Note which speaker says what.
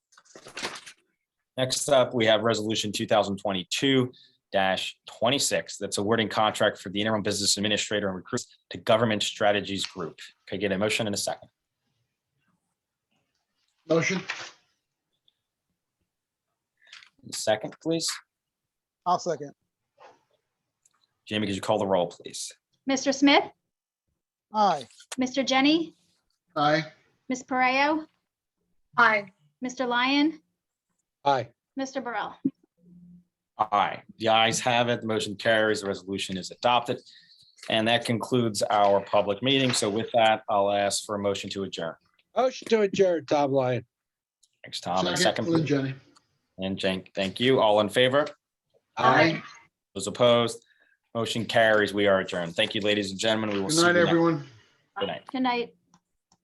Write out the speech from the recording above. Speaker 1: Next up, we have Resolution two thousand twenty-two twenty-six. That's awarding contract for the interim business administrator and recruits to Government Strategies Group. Could I get a motion in a second?
Speaker 2: Motion,
Speaker 1: Second, please.
Speaker 3: I'll second.
Speaker 1: Jamie, could you call the roll, please?
Speaker 4: Mr. Smith,
Speaker 3: Aye.
Speaker 4: Mr. Jenny,
Speaker 2: aye.
Speaker 4: Ms. Pareo,
Speaker 5: aye,
Speaker 4: Mr. Lyon,
Speaker 6: aye,
Speaker 4: Mr. Burrell.
Speaker 1: Aye. The ayes have it. The motion carries. The resolution is adopted. And that concludes our public meeting. So with that, I'll ask for a motion to adjourn.
Speaker 6: motion to adjourn, Tom Lyon,
Speaker 1: Thanks, Tom. And a
Speaker 2: Second, Lynn
Speaker 1: Second,
Speaker 2: Jenny.
Speaker 1: and Jen, thank you. All in favor?
Speaker 5: aye.
Speaker 1: Those opposed? Motion carries. We are adjourned. Thank you, ladies and gentlemen. We will
Speaker 2: Good
Speaker 1: see you
Speaker 2: night,
Speaker 1: next.
Speaker 2: everyone.
Speaker 1: Good night.
Speaker 4: Good night.